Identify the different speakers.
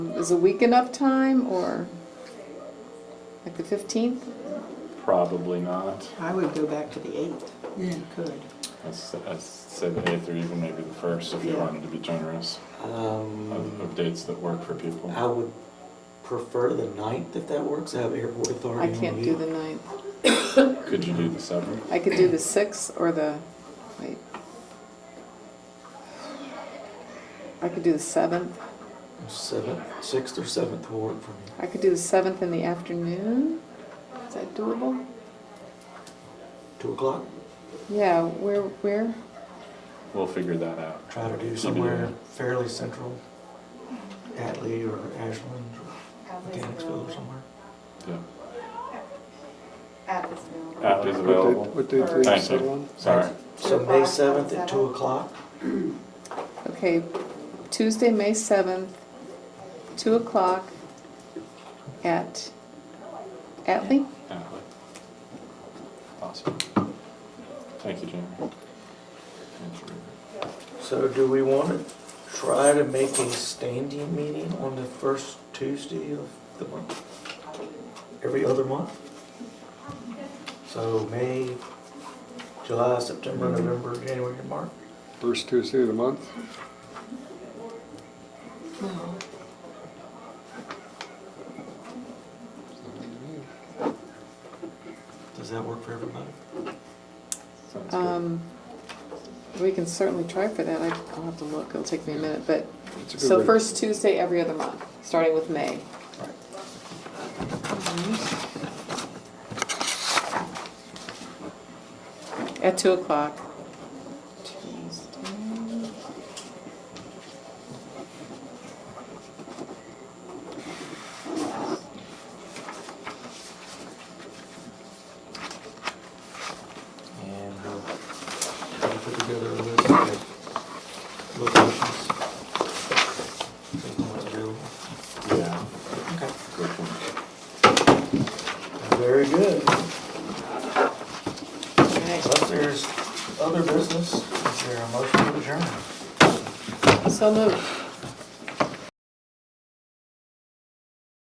Speaker 1: Is a week enough time, or like the 15th?
Speaker 2: Probably not.
Speaker 3: I would go back to the 8th, if you could.
Speaker 2: I'd s- I'd say the 8th or even E maybe the 1st if you
Speaker 3: Yeah.
Speaker 2: wanted to be generous of
Speaker 4: Um,
Speaker 2: of dates that work for people.
Speaker 4: I would prefer the ninth if that works. I have airport
Speaker 1: I
Speaker 4: authority. on
Speaker 1: can't do the 9th.
Speaker 2: Could you do the 7th?
Speaker 1: I could do the 6th or the, wait. I could do the 7th.
Speaker 4: Seventh, sixth or seventh will work for me.
Speaker 1: I could do the 7th in the afternoon. Is that doable?
Speaker 4: Two o'clock.
Speaker 1: Yeah, where, where?
Speaker 2: We'll figure that out.
Speaker 4: Try to do somewhere fairly central, Atlee or Ashland or Mechanicsville or somewhere.
Speaker 2: Yeah.
Speaker 5: At this mill.
Speaker 2: App is available.
Speaker 6: What date did you
Speaker 2: Thank
Speaker 6: settle
Speaker 2: you.
Speaker 6: on?
Speaker 2: Sorry.
Speaker 4: So May seventh at two o'clock.
Speaker 1: Okay, Tuesday, May 7th, 2 o'clock at Atlee?
Speaker 2: Atwood. Awesome. Thank you, Jamie. Thank you.
Speaker 4: So do we want to try to make a standing meeting on the first Tuesday of the month? Every other month? So May, July, September, November, January, and March?
Speaker 6: First Tuesday of the month?
Speaker 4: Does that work for everybody?
Speaker 2: Sounds good.
Speaker 1: Um, We can certainly try for that. I- I'll have to look, it'll take me a minute, but,
Speaker 6: That's a good
Speaker 1: so
Speaker 6: way.
Speaker 1: first Tuesday every other month, starting with May. At 2 o'clock. Tuesday.
Speaker 4: And we'll try to put together a list of locations. Based on what's available.
Speaker 2: Yeah.
Speaker 4: Okay.
Speaker 2: Good point.
Speaker 4: Very good.
Speaker 1: All right.
Speaker 4: Unless there's other business, is there a motion to adjourn?
Speaker 1: So moved.